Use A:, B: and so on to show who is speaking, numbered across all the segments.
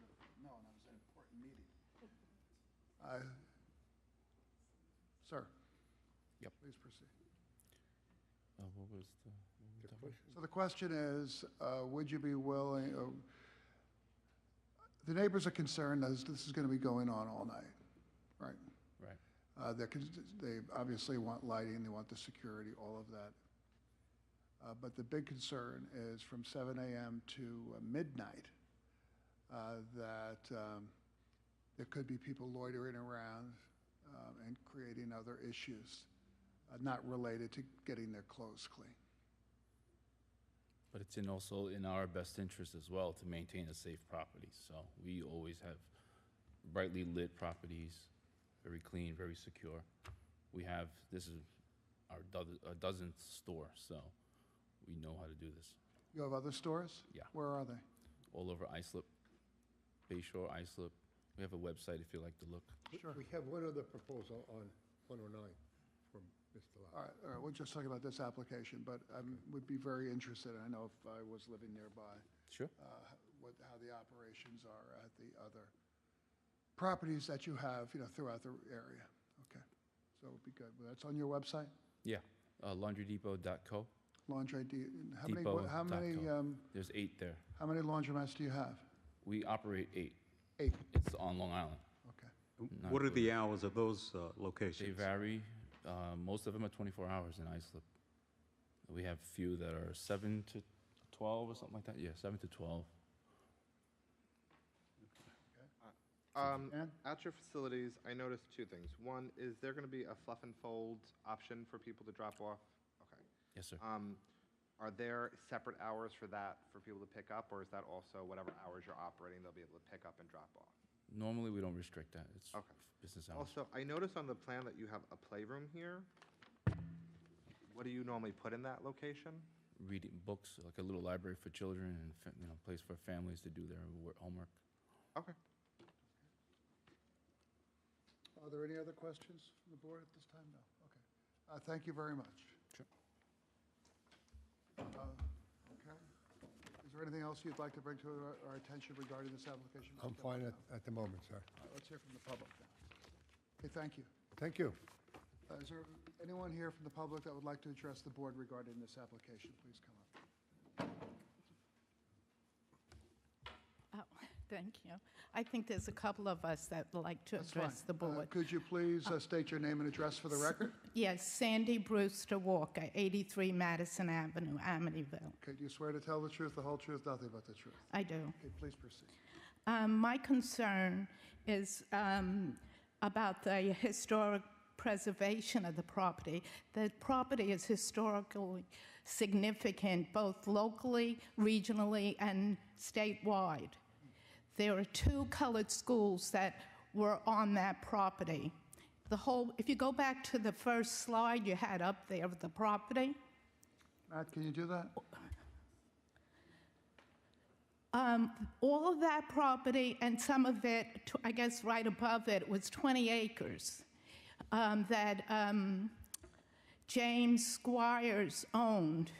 A: I- Sir?
B: Yep.
A: Please proceed.
B: Uh, what was the?
A: So the question is, uh, would you be willing, uh, the neighbors are concerned as this is going to be going on all night, right?
B: Right.
A: Uh, They're, cons- they obviously want lighting, they want the security, all of that. Uh, But the big concern is from 7 AM to uh, midnight, uh, that um, there could be people loitering around um, and creating other issues uh, not related to getting their clothes clean.
B: But it's in also in our best interest as well to maintain a safe property. So we always have brightly lit properties, very clean, very secure. We have, this is our doz- our dozenth store, so we know how to do this.
A: You have other stores?
B: Yeah.
A: Where are they?
B: All over Islip, Bayshore, Islip. We have a website if you like to look.
C: We-
A: Sure.
C: We have one other proposal on 109 from Mr.
A: All
C: Lau.
A: right, all right, we'll just talk about this application, but I would be very interested, I know if I was living nearby,
B: Sure.
A: uh, what, how the operations are at the other properties that you have, you know, throughout the area. Okay, so it'd be good. Well, That's on your website,
B: Yeah, uh, laundrydepot.co.
A: Laundry D, how many,
B: Depot
A: how
B: dot
A: many,
B: com.
A: um,
B: There's eight there.
A: how many laundromats do you have?
B: We operate eight.
A: Eight,
B: It's on Long Island.
A: okay.
B: Not
D: What are
B: really.
D: the hours of those uh,
B: They
D: locations?
B: vary. Uh, most of them are 24 hours in Islip. We have few that are 7 to 12 or something like that. Yeah, 7 to 12.
E: Um,
A: Ann?
E: at your facilities, I noticed two things. One, is there going to be a fluff and fold option for people to drop off? Okay.
B: Yes, sir.
E: Um, are there separate hours for that for people to pick up, or is that also whatever hours you're operating, they'll be able to pick up and drop off?
B: Normally, we don't restrict that. It's
E: Okay.
B: business hours.
E: Also, I noticed on the plan that you have a playroom here. What do you normally put in that location?
B: Reading books, like a little library for children and fa- you know, place for families to do their wor- homework.
E: Okay.
A: Are there any other questions from the board at this time? No, okay. Uh, Thank you very much.
B: Sure.
A: Uh, Okay. Is there anything else you'd like to bring to our- our attention regarding this application?
C: I'm fine at, at the moment, sir.
A: All right, Let's hear from the public now. Okay, thank you.
C: Thank you.
A: Uh, Is there anyone here from the public that would like to address the board regarding this application? Please come up.
F: Oh, thank you. I think there's a couple of us that would like to
A: That's fine.
F: address the
A: Uh,
F: board.
A: Could you please uh, state your name and address for the record?
F: Yes, Sandy Brewster Walker, 83 Madison Avenue, Amityville.
A: Could you swear to tell the truth, the whole truth, nothing but the truth?
F: I do.
A: Okay, please proceed.
F: Um, My concern is um, about the historic preservation of the property. The property is historically significant, both locally, regionally, and statewide. There are two colored schools that were on that property. The whole, if you go back to the first slide you had up there of the property,
A: Matt, can you do that?
F: Um, all of that property and some of it, tw- I guess right above it, was 20 acres um, that um, James Squires owned.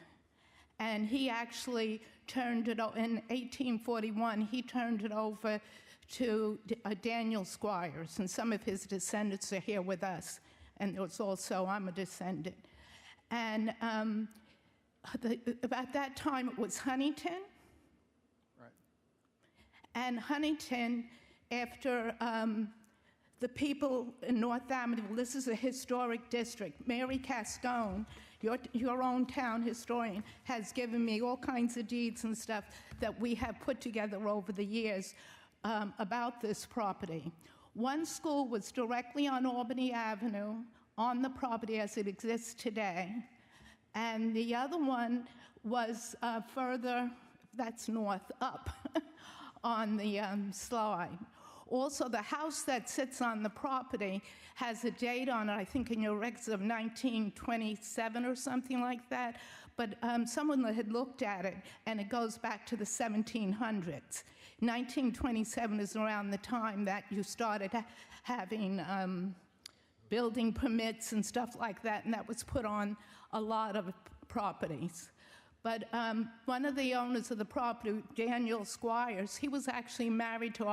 F: And he actually turned it, o- in 1841, he turned it over to D- uh, Daniel Squires, and some of his descendants are here with us. And there was also, I'm a descendant. And um, the, about that time, it was Huntington.
A: Right.
F: And Huntington, after um, the people in North Amityville, this is a historic district. Mary Castone, your, your own town historian, has given me all kinds of deeds and stuff that we have put together over the years um, about this property. One school was directly on Albany Avenue, on the property as it exists today. And the other one was uh, further, that's north up on the um, slide. Also, the house that sits on the property has a date on it, I think in your records of 1927 or something like that. But um, someone had looked at it, and it goes back to the 1700s. 1927 is around the time that you started ha- having. Um, building permits and stuff like that, and that was put on a lot of properties. But um, one of the owners of the property, Daniel Squires, he was actually married to